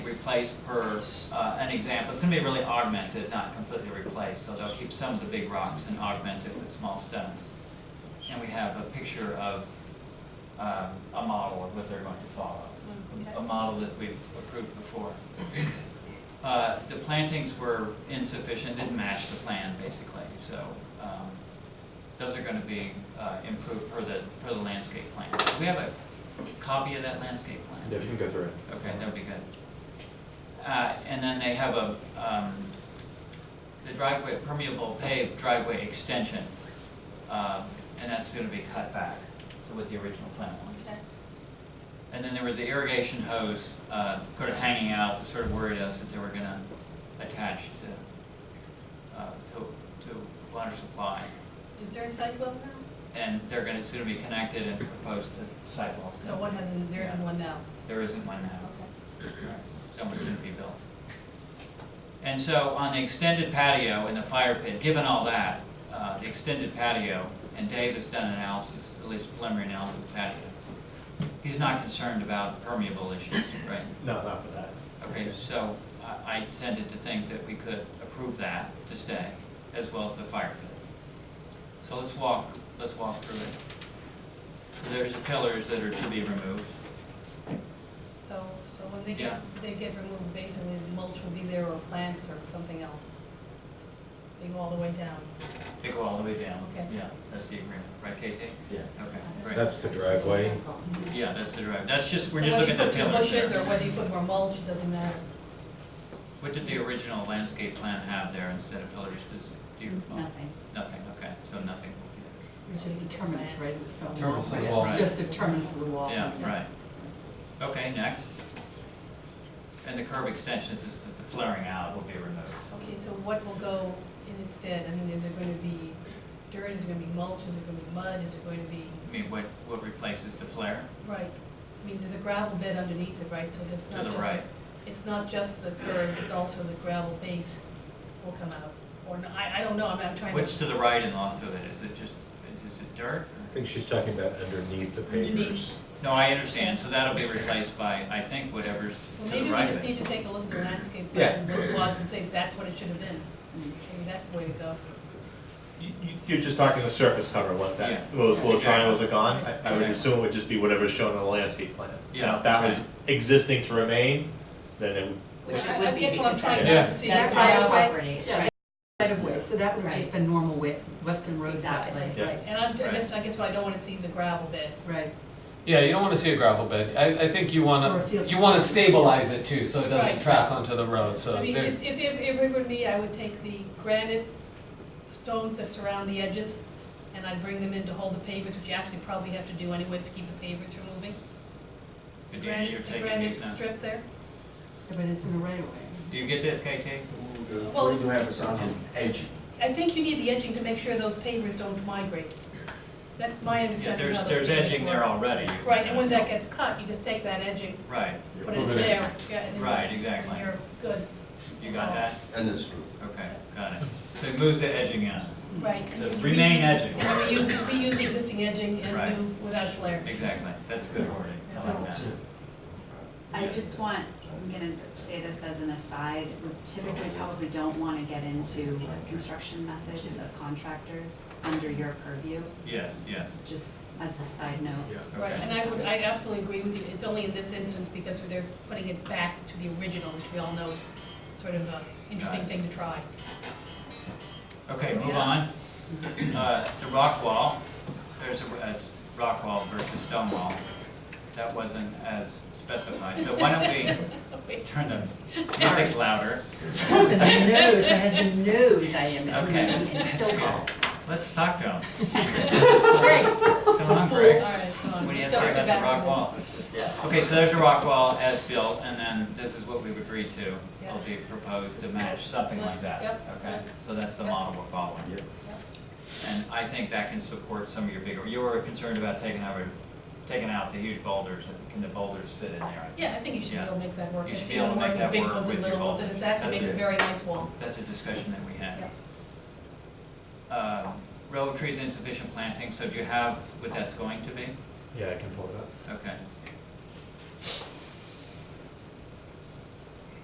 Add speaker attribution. Speaker 1: replaced per, uh, an example, it's gonna be really augmented, not completely replaced, so they'll keep some of the big rocks and augment it with small stones. And we have a picture of, um, a model of what they're going to follow,
Speaker 2: Mm, okay.
Speaker 1: a model that we've approved before. Uh, the plantings were insufficient, didn't match the plan, basically, so, um, those are gonna be, uh, improved per the, per the landscape plan. Do we have a copy of that landscape plan?
Speaker 3: Yeah, if you can go through it.
Speaker 1: Okay, that'd be good. Uh, and then they have a, um, the driveway, permeable paved driveway extension, um, and that's gonna be cut back to what the original plan was.
Speaker 2: Okay.
Speaker 1: And then there was the irrigation hose, uh, sort of hanging out, that sort of worried us that they were gonna attach to, uh, to, to water supply.
Speaker 2: Is there a sidewalk now?
Speaker 1: And they're gonna soon be connected and proposed to sidewalks.
Speaker 2: So one hasn't, there isn't
Speaker 1: Yeah.
Speaker 2: one now?
Speaker 1: There isn't one now.
Speaker 2: Okay.
Speaker 1: someone's gonna be built. And so on the extended patio and the fire pit, given all that, uh, the extended patio, and Dave has done an analysis, at least preliminary analysis of the patio. He's not concerned about permeable issues, right?
Speaker 3: No, not for that.
Speaker 1: Okay, so I, I tended to think that we could approve that to stay, as well as the fire pit. So let's walk, let's walk through it. So There's the pillars that are to be removed.
Speaker 2: So, so when they get,
Speaker 1: Yeah.
Speaker 2: they get removed, basically the mulch will be there or plants or something else? They go all the way down?
Speaker 1: They go all the way down.
Speaker 2: Okay.
Speaker 1: Yeah, that's the agreement, right, KT?
Speaker 3: Yeah.
Speaker 1: Okay, great.
Speaker 4: That's the driveway.
Speaker 1: Yeah, that's the drive, that's just, we're just looking at the pillars
Speaker 2: Mm-hmm. So whether you put two bushes
Speaker 1: there.
Speaker 2: or whether you put more mulch, it doesn't matter.
Speaker 1: What did the original landscape plan have there instead of pillars, does, do you recall?
Speaker 5: Nothing.
Speaker 1: Nothing, okay, so nothing.
Speaker 5: It was just a terminus, right, of the stone wall.
Speaker 6: Terminus of the
Speaker 5: It
Speaker 6: wall.
Speaker 5: was Just a terminus of the wall.
Speaker 1: Yeah, right. Okay, next. And the curb extensions, this is the flaring out will be removed.
Speaker 2: Okay, so what will go in its stead? I mean, is it gonna be dirt, is it gonna be mulch, is it gonna be mud, is it going to be,
Speaker 1: I mean, what, what replaces the flare
Speaker 2: right? I mean, there's a gravel bed underneath it, right, so that's
Speaker 1: to
Speaker 2: not
Speaker 1: the
Speaker 2: just.
Speaker 1: right?
Speaker 2: It's not just the curb, it's also the gravel base will come out, or, n- I, I don't know, I'm, I'm trying to.
Speaker 1: What's to the right and left of it, is it just, is it dirt?
Speaker 4: I think she's talking about underneath the pavers.
Speaker 2: Underneath.
Speaker 1: No, I understand, so that'll be replaced by, I think, whatever's
Speaker 2: Well,
Speaker 1: to
Speaker 2: maybe
Speaker 1: the
Speaker 2: we
Speaker 1: right
Speaker 2: just
Speaker 1: of
Speaker 2: need
Speaker 1: it.
Speaker 2: to take a look at the landscape
Speaker 3: Yeah.
Speaker 2: plan, what it was, and say, that's what it should have been. Maybe that's the way to go.
Speaker 3: You, you- you're just talking the surface cover, once
Speaker 1: Yeah.
Speaker 3: that, those little
Speaker 1: Exactly.
Speaker 3: triangles are gone, I, I would
Speaker 1: Exactly.
Speaker 3: assume it would just be whatever's shown on the landscape plan.
Speaker 1: Yeah,
Speaker 3: Now, if that was
Speaker 1: right.
Speaker 3: existing to remain, then it would
Speaker 5: Which
Speaker 2: I-
Speaker 5: it
Speaker 2: I
Speaker 5: would be
Speaker 2: guess what I'm
Speaker 5: because
Speaker 2: trying
Speaker 3: to Yeah.
Speaker 2: see
Speaker 5: that's
Speaker 2: is
Speaker 5: right
Speaker 2: how-
Speaker 5: of way.
Speaker 6: Properties,
Speaker 5: Yeah,
Speaker 6: right.
Speaker 5: Right of way, so that would have just
Speaker 6: Right.
Speaker 5: been normal wi- western roadside.
Speaker 6: Exactly.
Speaker 3: Yeah.
Speaker 6: right.
Speaker 2: And I'm, I guess, I guess what I don't wanna see is a gravel bed.
Speaker 5: Right,
Speaker 6: Yeah, you don't wanna see a gravel bed. I, I think you
Speaker 5: Or a
Speaker 6: wanna,
Speaker 5: field.
Speaker 6: you wanna stabilize it too, so it
Speaker 2: Right.
Speaker 6: doesn't track onto the road, so.
Speaker 2: I mean,
Speaker 6: there-
Speaker 2: if, if, if if it were me, I would take the granite stones that surround the edges, and I'd bring them in to hold the pavers, which you actually probably have to do anyways, to keep the pavers from moving. The
Speaker 1: Adina, you're
Speaker 2: granite, the
Speaker 1: taking
Speaker 2: granite
Speaker 1: these now.
Speaker 2: strip there.
Speaker 5: but it's in the right of way.
Speaker 1: Do you get this, KT?
Speaker 2: Well-
Speaker 7: We do have a sound on edge.
Speaker 2: I think you need the edging to make sure those pavers don't migrate. That's my
Speaker 1: Yeah,
Speaker 2: understanding of
Speaker 1: there's,
Speaker 2: how those
Speaker 1: there's
Speaker 2: pavers
Speaker 1: edging there
Speaker 2: work.
Speaker 1: already. You can-
Speaker 2: Right, and when that gets cut, you just take that edging,
Speaker 1: Right,
Speaker 2: put it
Speaker 6: Put it in.
Speaker 2: there, yeah, and then.
Speaker 1: Right, exactly.
Speaker 2: and You're good,
Speaker 1: you got that?
Speaker 7: And it's true.
Speaker 1: Okay, got it. So it moves the edging out,
Speaker 2: right. and
Speaker 1: So
Speaker 2: then you
Speaker 1: remain
Speaker 2: reuse-
Speaker 1: edging.
Speaker 2: And we use, we use the existing edging
Speaker 1: Right.
Speaker 2: and do without flare.
Speaker 1: exactly, that's good wording, I like that.
Speaker 8: I just want, I'm gonna say this as an aside, we typically probably don't wanna get into construction methods of contractors under your purview,
Speaker 1: Yes, yes,
Speaker 8: just as a side note.
Speaker 4: Yeah.
Speaker 2: Right,
Speaker 1: okay,
Speaker 2: and I would, I absolutely agree with you, it's only in this instance because they're putting it back to the original, which we all know is sort of a interesting
Speaker 1: Right.
Speaker 2: thing to try.
Speaker 1: okay, move
Speaker 2: Yeah.
Speaker 1: on. Uh, the rock wall, there's a, a rock wall versus stone wall, that wasn't as specified, so why don't we turn the music louder?
Speaker 5: That has been news, that has been news, I am,
Speaker 1: Okay.
Speaker 5: and still calls.
Speaker 1: Let's talk to them.
Speaker 5: Great.
Speaker 1: Come on,
Speaker 2: All
Speaker 1: Greg.
Speaker 2: right, so,
Speaker 1: What do you have to
Speaker 2: so
Speaker 1: say
Speaker 2: we're
Speaker 1: about
Speaker 2: back
Speaker 1: the
Speaker 2: to
Speaker 1: rock
Speaker 2: this.
Speaker 1: wall? Okay, so there's a rock wall as built, and then this is what we've agreed to, will be proposed to match something like that.
Speaker 2: Yep,
Speaker 1: Okay,
Speaker 2: yep.
Speaker 1: so that's the
Speaker 2: Yep.
Speaker 1: model we're following.
Speaker 7: Yep.
Speaker 1: And I think that can support some of your bigger, you were concerned about taking out, taking out the huge boulders, can the boulders fit in there?
Speaker 2: Yeah, I think you should be able to make that work.
Speaker 1: You
Speaker 2: I
Speaker 1: should
Speaker 2: see
Speaker 1: be able to
Speaker 2: more
Speaker 1: make
Speaker 2: of the
Speaker 1: that
Speaker 2: big
Speaker 1: work
Speaker 2: ones and
Speaker 1: with your
Speaker 2: little ones,
Speaker 1: bulb.
Speaker 2: And it's actually
Speaker 1: That's
Speaker 2: makes a
Speaker 1: it.
Speaker 2: very nice wall.
Speaker 1: That's a discussion that we had.
Speaker 2: Yeah.
Speaker 1: Uh, Row of trees insufficient planting, so do you have what that's going to be?
Speaker 3: Yeah, I can pull it up.
Speaker 1: Okay,